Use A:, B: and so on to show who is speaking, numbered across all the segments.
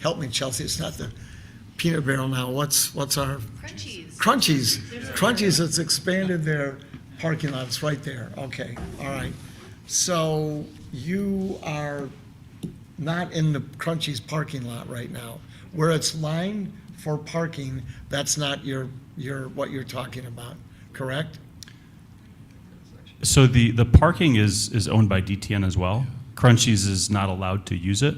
A: help me, Chelsea, it's not the peanut barrel now, what's, what's our?
B: Crunchies.
A: Crunchies, Crunchies has expanded their parking lots right there, okay, all right. So you are not in the Crunchies parking lot right now. Where it's lined for parking, that's not your, your, what you're talking about, correct?
C: So the, the parking is, is owned by DTN as well. Crunchies is not allowed to use it.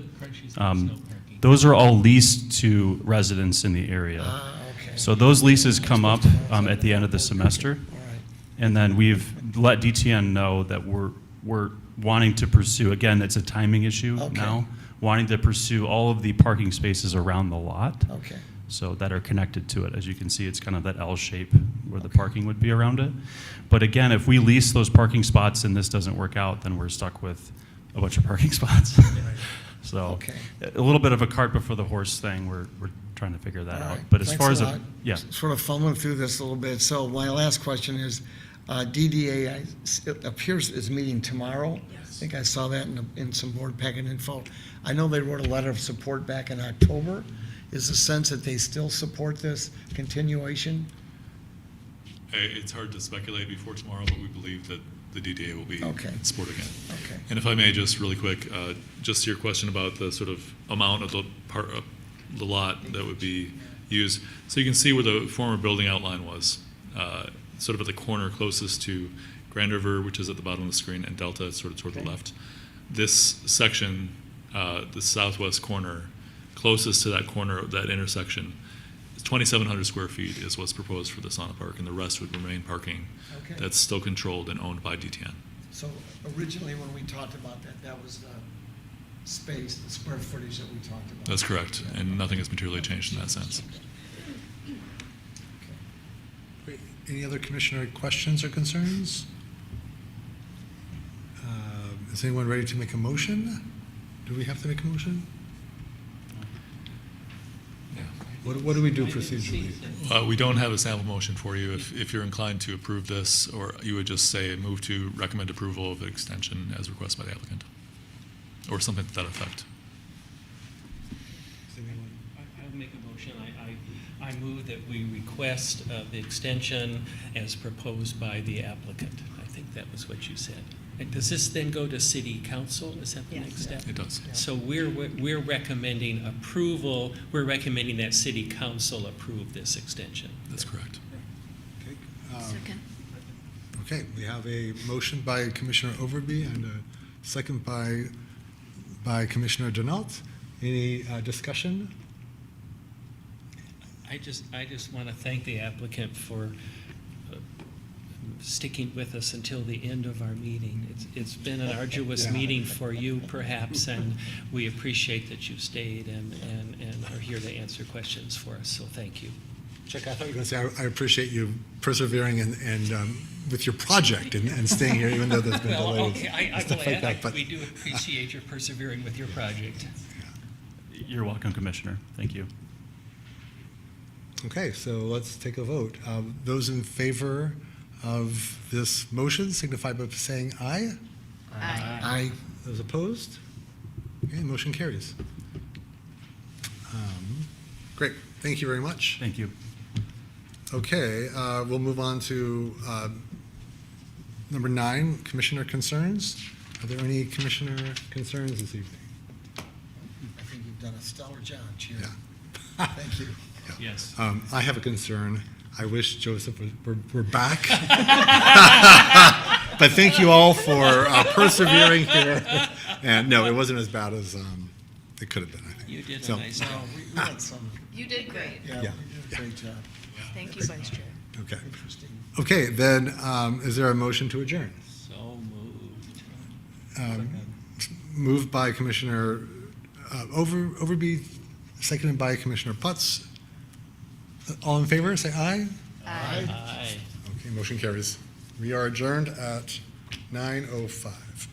C: Um, Those are all leased to residents in the area.
A: Ah, okay,
C: So those leases come up um, at the end of the semester.
A: all right.
C: And then we've let DTN know that we're, we're wanting to pursue, again, it's a timing issue
A: Okay.
C: now, wanting to pursue all of the parking spaces around the lot.
A: Okay,
C: so that are connected to it. As you can see, it's kind of that L shape where the parking would be around it. But again, if we lease those parking spots and this doesn't work out, then we're stuck with a bunch of parking spots. So,
A: Okay.
C: a little bit of a cart before the horse thing, we're, we're trying to figure
A: all
C: that out.
A: right.
C: Uh, But as
A: Thanks
C: far
A: a
C: as, a
A: lot.
C: yeah,
A: S- Sort of fumbling through this a little bit. So my last question is, uh, DDA, I s- it appears is meeting tomorrow. I think I saw that in, the- in some board packet info. I know they wrote a letter of support back in October. Is the sense that they still support this continuation?
D: I- Uh, It's hard to speculate before tomorrow, but we believe that the DDA will be
A: Okay.
D: supporting it.
A: Okay,
D: And if I may, just really quick, uh, just to your question about the sort of amount of the part, of the lot that would be used. So you can see where the former building outline was, uh, sort of at the corner closest to Grand River, which is at the bottom of the screen, and Delta, sort of toward the
A: Okay.
D: left. This section, uh, the southwest corner, closest to that corner, of that intersection, is 2,700 square feet is what's proposed for the sauna park, and the rest would remain parking.
A: Okay.
D: That's still controlled and owned by DTN.
A: so originally when we talked about that, that was the space, the square footage that we talked about.
D: That's correct, and nothing has materially changed in that sense.
E: Great. Any other commissioner questions or concerns? Uh, Is anyone ready to make a motion? Do we have to make a motion? What, what do we do procedurally?
D: Uh, We don't have a sample motion for you. If if you're inclined to approve this, or you would just say, move to recommend approval of extension as requested by the applicant, or something to that effect.
E: Does anyone-
F: I- I'll make a motion. I, I, I move that we request uh, the extension as proposed by the applicant. I think that was what you said. And Does this then go to city council? Is that the
B: Yes.
F: next step?
D: It does.
F: So we're, we're recommending approval, we're recommending that city council approve this extension.
D: That's correct.
E: Okay, um, Okay, we have a motion by Commissioner Overby and a second by, by Commissioner Denault. Any uh, discussion?
F: I just, I just want to thank the applicant for uh, sticking with us until the end of our meeting. It's, it's been an arduous
E: Yeah.
F: meeting for you perhaps, and we appreciate that you've stayed and, and, and are here to answer questions for us, so thank you.
E: Chuck, I thought you were going to say, I- I appreciate you persevering and, and um, with your project and, and staying here, even though there's been
F: Well,
E: delays.
F: okay, I,
E: and
F: I'm
E: stuff like
F: glad,
E: that,
F: I-
E: but-
F: we do appreciate your persevering with your project.
C: you're welcome, Commissioner. Thank you.
E: Okay, so let's take a vote. Um, Those in favor of this motion signify by saying aye.
B: Aye.
A: I,
E: Those opposed? Okay, motion carries. Um, Great, thank you very much.
C: Thank you.
E: Okay, uh, we'll move on to uh, number nine, commissioner concerns. Are there any commissioner concerns this evening?
A: I think you've done a stellar job, Chair.
E: Yeah.
A: Thank you.
F: Yes.
E: Um, I have a concern. I wish Joseph was- were, were back. but thank you all for uh, persevering here. And no, it wasn't as bad as um, it could have been. I think.
F: You did a
E: So,
F: nice
A: No,
F: job.
A: we we had some,
B: You did great.
A: yeah,
E: Yeah.
A: you did a great job.
B: Thank you, Vice Chair.
E: Okay.
A: Interesting.
E: Okay. Then, um, is there a motion to adjourn?
F: So moved.
E: Um, moved by Commissioner uh, Over Overby, seconded by Commissioner Putz. All in favor, say aye.
F: Aye.
E: oh Okay, motion carries. We are adjourned at 9:05.